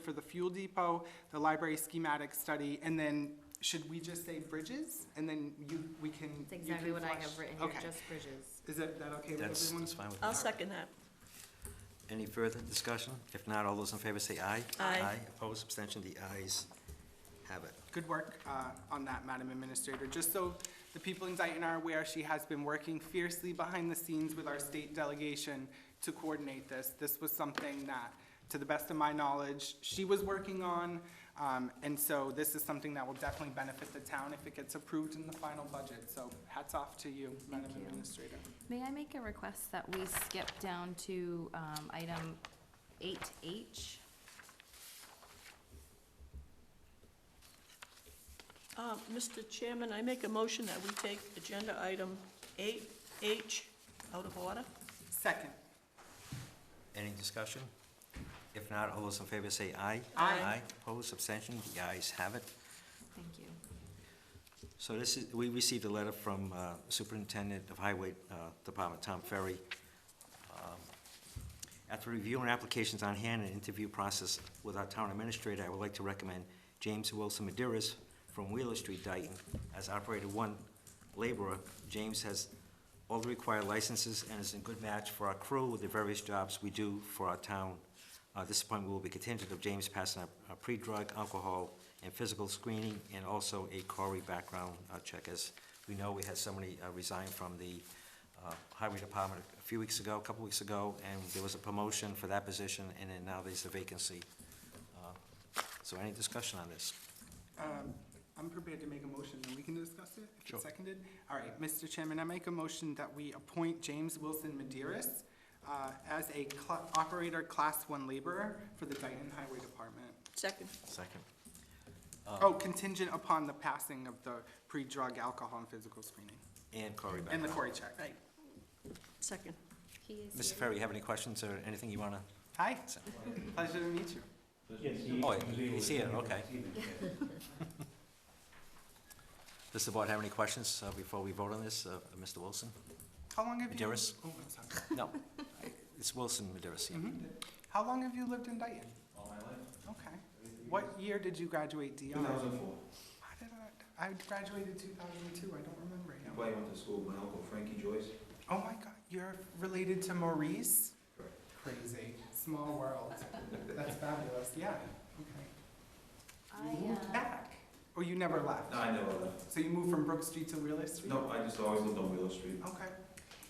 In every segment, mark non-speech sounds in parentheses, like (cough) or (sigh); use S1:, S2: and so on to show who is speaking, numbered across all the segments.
S1: for the fuel depot, the library schematic study, and then should we just say bridges? And then you, we can.
S2: That's
S1: you
S2: exactly
S1: can
S2: what I
S1: flush-
S2: have written here,
S1: Okay.
S2: just bridges.
S1: Is that, that okay with
S3: That's,
S1: everyone?
S3: that's fine with me.
S4: I'll second that.
S3: Any further discussion? If not, all those in favor say aye.
S4: Aye.
S3: Opposed, abstention, the ayes have it.
S1: Good work uh, on that, Madam Administrator. Just so the people in Dayton are aware, she has been working fiercely behind the scenes with our state delegation to coordinate this. This was something that, to the best of my knowledge, she was working on, um, and so this is something that will definitely benefit the town if it gets approved in the final budget. So hats off to you, Madam
S2: you.
S1: Administrator.
S2: May I make a request that we skip down to, um, item eight H?
S4: Uh, Mr. Chairman, I make a motion that we take agenda item 8H out of order.
S1: Second.
S3: Any discussion? If not, all those in favor say aye.
S1: Aye.
S3: Opposed, abstention, the ayes have it.
S2: Thank you.
S3: So this is, we received a letter from uh, Superintendent of Highway uh, Department, Tom Ferry. Um, After reviewing applications on hand and interview process with our town administrator, I would like to recommend James Wilson Maderas from Wheeler Street, Dayton, as operator one laborer. James has all the required licenses and is a good match for our crew with the various jobs we do for our town. Uh, This appointment will be contingent of James passing a- a pre-drug, alcohol, and physical screening, and also a Corey background uh, check. As we know, we had somebody uh, resign from the uh, Highway Department a few weeks ago, a couple weeks ago, and there was a promotion for that position, and then now there's a vacancy. Uh, So any discussion on this?
S1: Um, I'm prepared to make a motion, and we can discuss it if
S3: Sure.
S1: it's seconded. All right, Mr. Chairman, I make a motion that we appoint James Wilson Maderas uh, as a cl- operator Class 1 laborer for the Dayton Highway Department.
S4: Second.
S3: Second.
S1: Oh, contingent upon the passing of the pre-drug alcohol and physical screening,
S3: And Corey background.
S1: and the Cory check.
S4: Right. Second.
S2: He is
S3: Mr.
S2: here.
S3: Ferry, you have any questions or anything you want to?
S1: Hi, pleasure to meet you.
S5: Yes,
S3: Oh, he's here, okay. (laughs) Does the board have any questions uh, before we vote on this, uh, Mr. Wilson?
S1: How long have you?
S3: Maderas?
S1: Oh, I'm sorry.
S3: No, I- it's Wilson Maderas, yeah.
S1: Mhm. How long have you lived in Dayton?
S5: All my life,
S1: Okay. What year did you graduate DR?
S5: two thousand four.
S1: How did I, I graduated 2002, I don't remember.
S5: I probably went to school with my uncle Frankie Joyce.
S1: Oh my God, you're related to Maurice?
S5: Correct.
S1: Crazy, small world. That's fabulous, yeah, okay.
S2: I,
S1: You moved
S2: uh,
S1: back, or you never left?
S5: No, I never left.
S1: So you moved from Brook Street to Wheeler Street?
S5: No, I just always lived on Willow Street.
S1: Okay,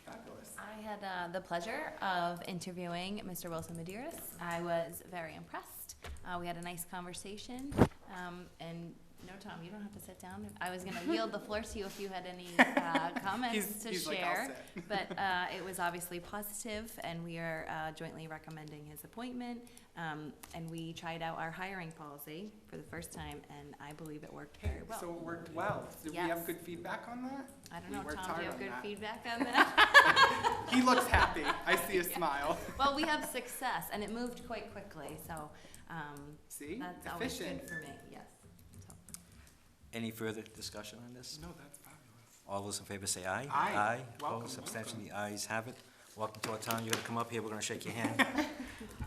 S1: fabulous.
S2: I had uh, the pleasure of interviewing Mr. Wilson Maderas. I was very impressed. Uh, We had a nice conversation. Um, And no, Tom, you don't have to sit down. I was going (laughs) to yield the floor to you if you had any uh, (laughs) comments
S1: He's,
S2: to
S1: he's like, I'll
S2: share.
S1: sit.
S2: But uh, it was obviously positive, and we are uh, jointly recommending his appointment. Um, And we tried out our hiring policy for the first time, and I believe it worked
S1: Hey,
S2: very well.
S1: So it worked well. Did we
S2: Yes.
S1: have good feedback on that?
S2: I don't
S1: we
S2: know,
S1: worked
S2: Tom, do
S1: hard
S2: you
S1: on
S2: have good
S1: that.
S2: feedback on that? (laughs)
S1: He looks happy, I see a smile.
S2: Well, we have success, and it moved quite quickly, so um,
S1: See,
S2: that's always
S1: efficient.
S2: good for me,
S1: (laughs)
S2: yes. So,
S3: Any further discussion on this?
S1: No, that's fabulous.
S3: All those in favor say aye.
S1: Aye.
S3: Aye,
S1: Welcome,
S3: opposed, abstention,
S1: welcome.
S3: the ayes have it. Welcome to our town, you're gonna come up here, we're gonna shake your hand.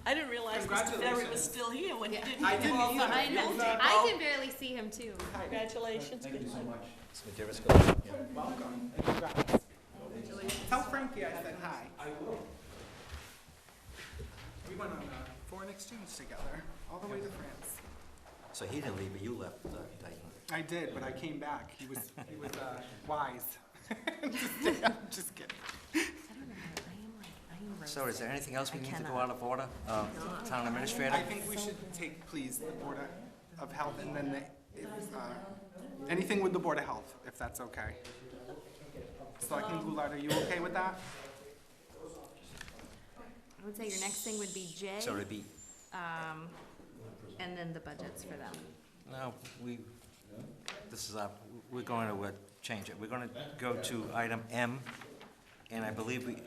S4: I didn't realize Mr. Ferry was
S1: Congratulations.
S4: still here when he
S2: Yeah.
S4: didn't.
S1: I didn't
S4: call for
S1: either.
S2: I
S4: you.
S1: (laughs)
S2: know, I can barely see him too.
S4: Congratulations.
S5: Thank you so much.
S3: Mr. Maderas, go ahead.
S1: Welcome, congrats. Tell Frankie I said hi.
S5: I will.
S1: We went on a foreign exchange together, all the way to France.
S3: So he didn't leave, but you left, uh, Dayton.
S1: I did, but I came back. He was, he was uh, wise. (laughs) Just- I'm Just kidding.
S2: I don't know, I am like, I am rosy.
S3: So is there anything else we
S2: I
S3: need to go
S2: cannot.
S3: out of order? Uh, Town administrator?
S1: I think we should take, please, the Board of- of Health and then the, if, uh, anything with the Board of Health, if that's okay. Selectman Goulart, are you okay with that?
S2: I would say your next thing would be J,
S3: So it'd be,
S2: um, and then the budgets for them.
S3: no, we, this is, our- we're going to uh, change it. We're gonna go to item M, and I believe we,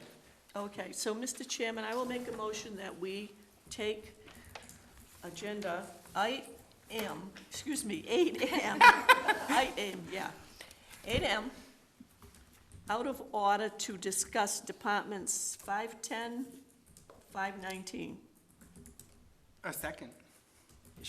S4: Okay, so, Mr. Chairman, I will make a motion that we take agenda I M, excuse me, eight M, (laughs) I M, yeah, eight M, out of order to discuss departments five-ten, five-nineteen.
S1: A second.